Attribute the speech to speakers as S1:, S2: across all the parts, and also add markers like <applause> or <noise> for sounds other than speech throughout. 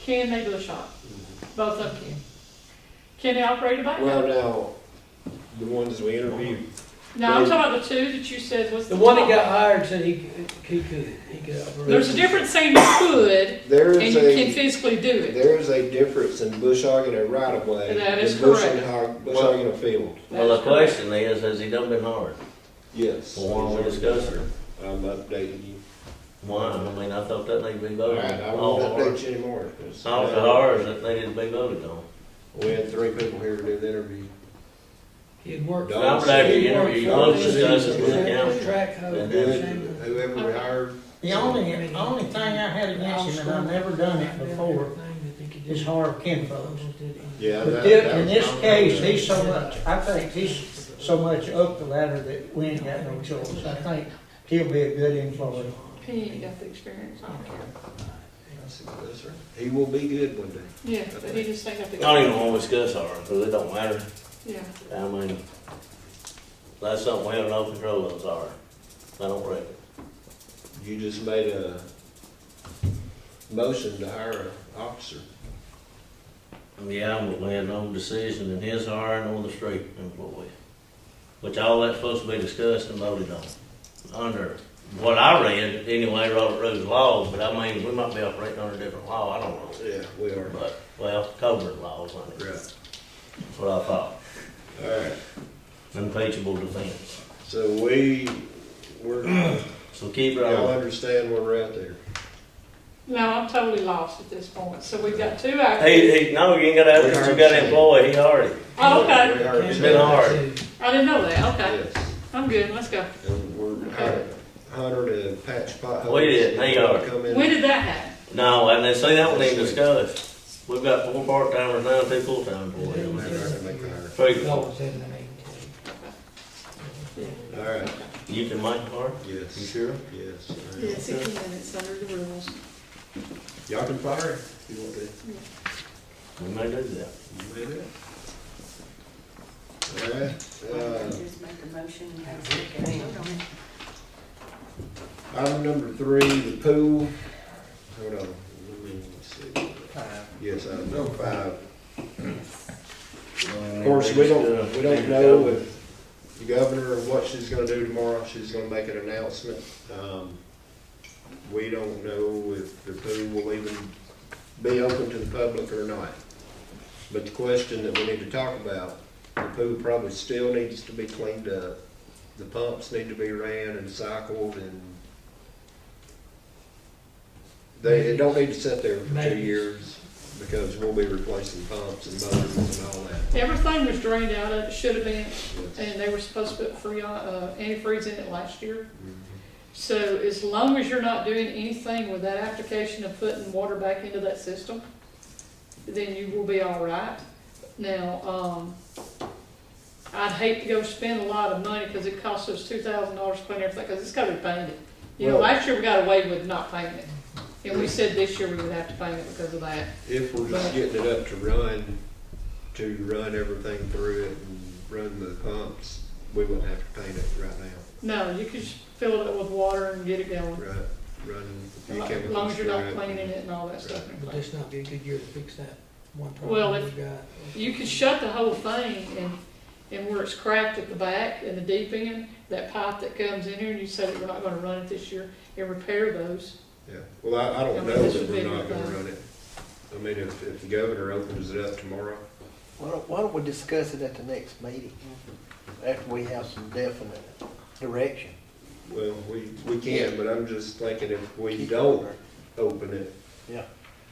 S1: Can they do a shop?
S2: Mm-hmm.
S1: Both of them can. Can they operate a backup?
S3: Well, now, the ones we interviewed,
S1: No, I'm talking about the two that you said was.
S4: The one that
S1: top.
S4: got hired said he, could- he could, he could operate.
S1: There's a difference saying you could
S3: there
S1: and
S3: is
S1: you can
S3: a,
S1: physically do it.
S3: there is a difference in bush hogging a right of way.
S1: And that is
S3: and bush
S1: correct.
S3: hog- Bush hogging a field,
S2: Well, the question is, has he done been hard?
S3: yes.
S2: Well, why don't we discuss it?
S3: I'm updating you.
S2: Why? I mean, I thought that needed to be
S3: All
S2: voted
S3: right, I
S2: on.
S3: won't
S2: All hard.
S3: update you anymore. 'cause-
S2: All the hards that needed to be voted on.
S3: We had three people here to do the interview.
S4: He had worked.
S3: Don't
S4: Robert
S3: say
S4: Avery
S3: you
S4: interviewed
S3: worked
S4: both
S3: for
S4: of
S3: them.
S4: us with the council. Track hoe,
S2: And
S4: shame.
S3: Whoever we hired,
S5: The only, the only thing I had against him, and I've never done it before, is hard kinfolks.
S3: yeah.
S5: But
S3: that-
S5: thi-
S3: that
S5: in
S3: was
S5: this
S3: my-
S5: case, he's so much, I think he's so much up the ladder that we ain't got no choice. I think he'll be a good employee.
S1: He ain't got the experience. I don't care.
S3: That's it, that's right. He will be good one day.
S1: Yeah, but he just ain't got the.
S2: I don't even want to discuss hard, because it don't matter.
S1: Yeah.
S2: I mean, that's something we have no control of, sorry. I don't reckon.
S3: You just made a motion to hire an officer.
S2: Yeah, but we had no decision in his hiring or the street employee. Which all that's supposed to be discussed and voted on. Under what I read, anyway, Robert Rules laws, but I mean, we might be operating under a different law, I don't know.
S3: Yeah, we are.
S2: But, well, Covert laws, I think,
S3: Right.
S2: that's what I thought.
S3: All right.
S2: Impeachable defense.
S3: So we,
S2: <clears throat>
S3: we're,
S2: So keep it
S3: y'all
S2: on.
S3: understand where we're at there.
S1: No, I'm totally lost at this point. So we've got two
S2: He,
S1: actors.
S2: he, no, you ain't gotta ask, 'cause you got an employee, he already.
S1: Oh, okay.
S3: We hired
S2: It's
S3: two.
S2: been hard.
S1: I didn't know that. Okay.
S3: Yes,
S1: I'm good. Let's go.
S3: and we're hiring Hunter to patch potholes.
S2: We did, they are.
S3: Come in.
S1: When did that happen?
S2: No, and they say that one ain't discussed. We've got four part-timers now, two full-time employees.
S3: Make the hire.
S2: Three,
S4: That
S2: four.
S4: was in the meeting.
S3: All right,
S2: You can make part? You
S3: yes,
S2: sure?
S3: yes. all right.
S1: Yeah, sixty minutes under the rules.
S3: Y'all can fire him if you want to.
S2: We may do that.
S3: You may do it. All right, uh,
S6: Just make a motion and have a second. Hold on.
S3: Item number three, the pool. Hold on, let me see. Yes, item number five. Of course, we don't, we don't know if the governor, or what she's gonna do tomorrow, she's gonna make an announcement. Um, We don't know if the pool will even be open to the public or not. But the question that we need to talk about, the pool probably still needs to be cleaned up. The pumps need to be ran and cycled and they, it don't need to sit there for two
S4: Maybe.
S3: years because we'll be replacing pumps and motors and all that.
S1: Everything was drained out of it. Should have been.
S3: Yes.
S1: And they were supposed to put free, uh, antifreeze in it last year.
S3: Mhm.
S1: So as long as you're not doing anything with that application of putting water back into that system, then you will be all right. Now, um, I'd hate to go spend a lot of money because it costs us two thousand dollars to clean everything, because it's gotta be painted. You know,
S3: Well-
S1: last year we got away with not painting it, and we said this year we would have to paint it because of that.
S3: If we're just getting it up to run, to run everything through it and run the pumps, we wouldn't have to paint it right now,
S1: No, you could just fill it up with water and get it going,
S3: right? Running a few
S1: as
S3: chemicals
S1: long as you're not
S3: through it.
S1: cleaning it and all that stuff.
S4: But this not be a good year to fix that one
S1: Well,
S4: problem
S1: if-
S4: we got.
S1: You could shut the whole thing and, and where it's cracked at the back and the deep end, that pipe that comes in here and you say that we're not gonna run it this year and repair those.
S3: Yeah, well, I, I
S1: I
S3: don't
S1: mean,
S3: know
S1: this
S3: that
S1: would be
S3: we're not gonna
S1: required.
S3: run it. I mean, if, if the governor opens it up tomorrow,
S7: Why don't, why don't we discuss it at the next meeting, after we have some definite direction?
S3: well, we, we can, but I'm just thinking if we don't open it,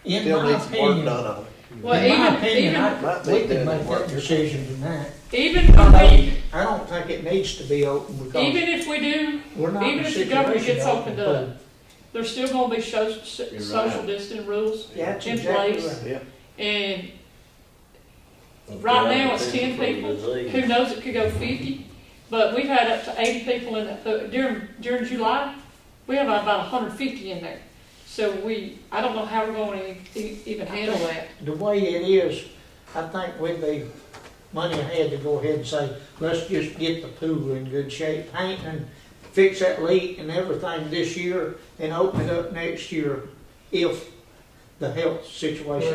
S5: In
S7: Still
S5: my
S7: needs work done
S5: opinion,
S7: on it.
S1: Well,
S5: in my
S1: even,
S5: opinion,
S1: even,
S5: I,
S7: Might be
S5: we
S7: doing
S5: can make
S7: work.
S5: that decision tonight.
S1: even, I mean,
S5: I don't think it needs to be open because
S1: even if we do,
S5: we're not in
S1: even
S5: a
S1: if the government
S5: situation
S1: gets
S5: to
S1: opened
S5: open
S1: up.
S5: up.
S1: there's still gonna be social, social distancing rules
S5: That's
S1: in
S5: exactly
S1: place.
S5: right.
S7: Yeah.
S1: And Right now, it's 10 people. who knows, it could go fifty, but we've had up to eighty people in that, uh, during, during July, we have about hundred and fifty in there. So we, I don't know how we're gonna e- even handle that.
S5: The way it is, I think we'd be money ahead to go ahead and say, let's just get the pool in good shape, paint and fix that leak and everything this year and open it up next year if the health situation